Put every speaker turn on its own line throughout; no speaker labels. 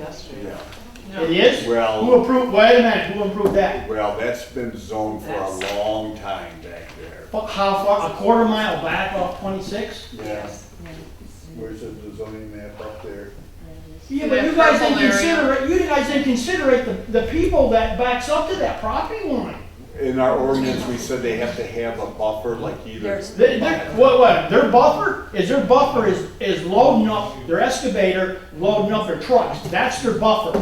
yeah.
It is?
Well-
Who approved, wait a minute, who approved that?
Well, that's been zoned for a long time back there.
Fu- How far, a quarter mile back off twenty-six?
Yeah, where's the zoning map up there?
Yeah,
but you guys didn't consider
it, you guys didn't consider it, the, the people that backs up to that property line.
In our ordinance, we said they have to have a buffer like either.
There's-
They, they're, what, what, their buffer, is their buffer is, is loading up, their excavator loading up their trucks, that's their buffer.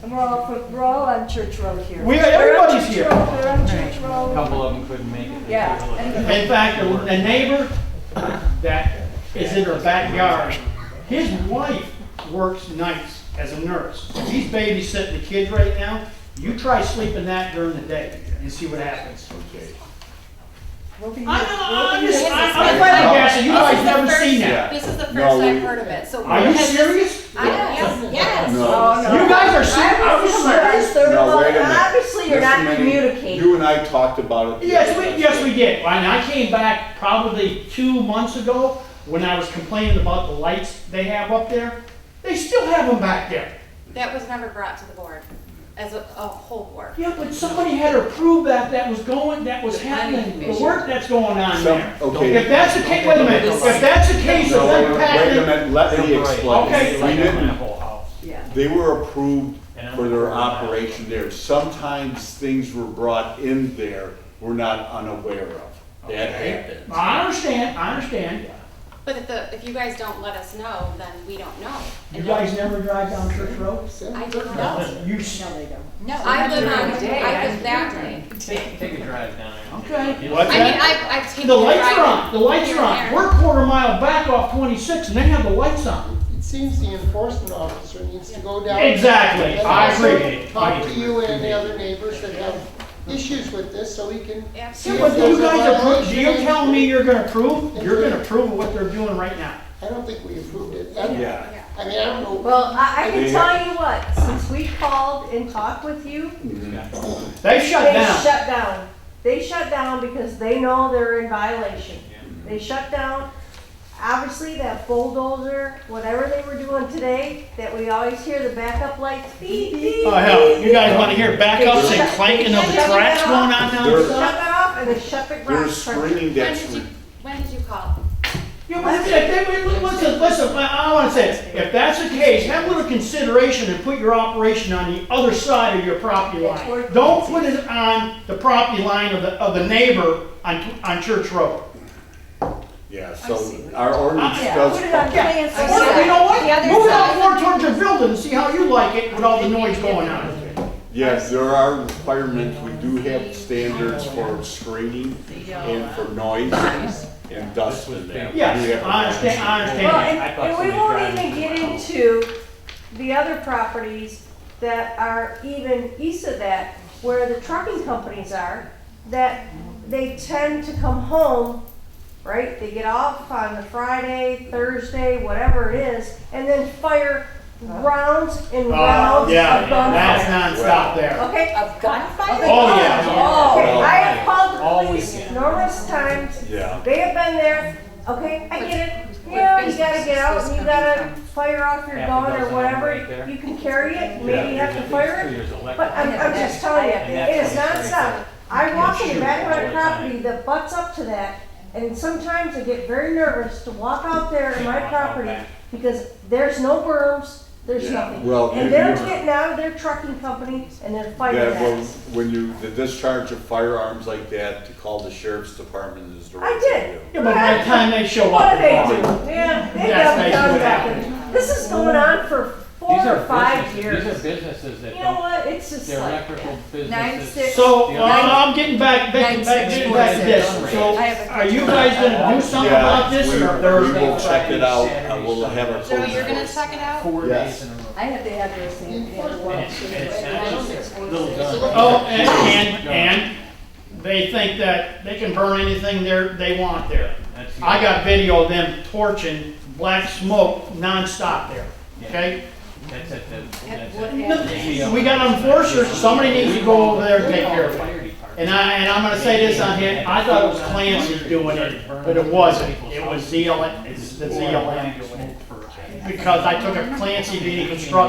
And we're all, from- we're all on Church Road here.
We-
We're on
everybody's
Church
here.
Road, We're on Church Road.
Couple of them couldn't make it.
Yeah.
In fact, the the neighbor that is in her backyard, his wife works nights as a nurse. He's babysitting the kids right now. You try sleeping that during the day and see what happens.
Okay.
We'll be-
I'm, not- I'm
we'll be
just,
here.
I'm I'm fighting gas, and you guys never seen that.
This is the first
No, we-
I've heard of it, so.
Are you serious?
I am, yes.
No.
Oh, no.
You guys are serious? I'm
Obviously,
serious.
they're
No,
all-
wait a minute.
Obviously, you're
There's
not
too many-
communicating.
You and I talked about it.
Yes, we, yes, we did. And I came back probably two months ago when I was complaining about the lights they have up there. They still have them back there.
That was never brought to the board as a, a whole board.
Yeah, but somebody had to prove that that was going, that was happening, the work that's going on there.
Some- okay.
If that's the case, wait a minute, if that's the case of
No, wait a
them
minute, wait a
packing,
minute, let me
Okay.
explain. We didn't,
whole house.
Yeah.
they were approved for their operation there. Sometimes things were brought in there we're not unaware of. That happens.
I understand, I understand.
But if the, if you guys don't let us know, then we don't know.
You guys never drive down Church Road?
I don't know.
You, s-
No, I live on, I
Day,
live
I-
that way.
Take, take a drive down there.
okay.
What's
I mean, I, I've taken.
The lights are
driving
on, the lights
here
are
and
on.
there.
We're quarter mile back off twenty-six and they have the lights on.
It seems the enforcement officer needs to go down.
Exactly,
and
I
also
agree.
Talk to you and the other neighbors that have issues with this, so we can.
Yeah,
Absolutely.
but do you guys approve, do you tell me you're gonna approve? You're gonna approve of what they're doing right now.
I don't think we approved it. I don't-
Yeah.
I mean, I don't know.
Well, I, I can
Yeah.
tell you what, since we called and talked with you,
They shut
they
down.
shut down. They shut down because they know they're in violation. They shut down. Obviously, that bulldozer, whatever they were doing today, that we always hear the backup lights beep, beep.
Oh, hell, you guys wanna hear backups and clanking of the tracks going on
They
now?
They're-
shut that off and they shut the
There's
garage. door.
screening
When
that's
did you, when did you call?
Yeah, but if they, wait, wait, listen, listen, I I wanna say, this. if that's the case, have a little consideration and put your operation on the other side of your property line. Don't put it on the property line of the, of the neighbor on, on Church Road.
Yeah,
I
so
see what
our ordinance
Yeah,
does.
Put it on Clancy
I
Or, you
side.
know what,
The other
move it
side.
out more towards your building and see how you like it with all the noise going on.
Yes, there are requirements, we do have standards for screening and for noise and dust in there. We
Yes,
have-
I understand, I
Well,
understand.
and,
I thought
and we
somebody
won't
grabbed
even
it.
get into the other properties that are even east of that, where the trucking companies are, that they tend to come home, right? They get off on the Friday, Thursday, whatever it is, and then fire rounds and
Uh. Oh,
rounds
yeah,
of
that's
gunfire.
nonstop there.
Okay?
Of gunfire?
Oh, yeah. Oh,
Okay, I have
All
called the police
weekend.
numerous times,
Yeah,
They have been there, okay, I get it, you know, you gotta get out, and you gotta fire off your
Half a
gun or
dozen
whatever,
right there.
you can carry it, maybe you have to fire it, but I'm, I'm just telling you,
And that's
it is
what it's
nonstop.
like.
I
You
walk
can't
in the back
shoot
of my
all the time.
property that butts up to that, and sometimes I get very nervous to walk out there in my
Can't walk out
property,
back.
because there's no berms, there's
Yeah,
nothing.
well,
And
you-
they're
you-
getting out of their trucking company, and they're fighting
yeah, well,
that.
when you, the discharge of firearms like that, to call the sheriff's department is the
I
right thing
did.
to do.
Yeah, but by the time they show
What
up.
do
they're
they
gone.
do? Yeah, they
That's
got
basically
done
what
back. This is going on for four
These
or
are
five
businesses-
years.
These are businesses that
You know
don't,
what? It's just
they're
like.
electrical
Nine,
businesses.
six.
So,
Yeah.
uh, I'm getting back, back, back, getting back to this, so
I have a-
are you guys gonna do something
Yeah,
about this, or
we-
there's?
We will
Thursday,
check it out,
Saturday,
and we'll have a.
So
closed
you're gonna
voice.
check it
uh,
out?
Four
Yes.
days in a row.
I have the address and the
And it's, and it's not just
enforcement.
little guns.
Oh, and, and, and they think that they can burn anything there, they want there.
That's-
I got video of them torching black smoke nonstop there, okay?
That's at the, that's
what
at
end?
the.
We got enforcers, somebody needs to go over there and take care of it.
Fire department.
And I, and I'm gonna say this on here, I thought it was Clancy doing it, but it wasn't. It was ZLM, it's the ZLM. Because I took a Clancy Meeting Construction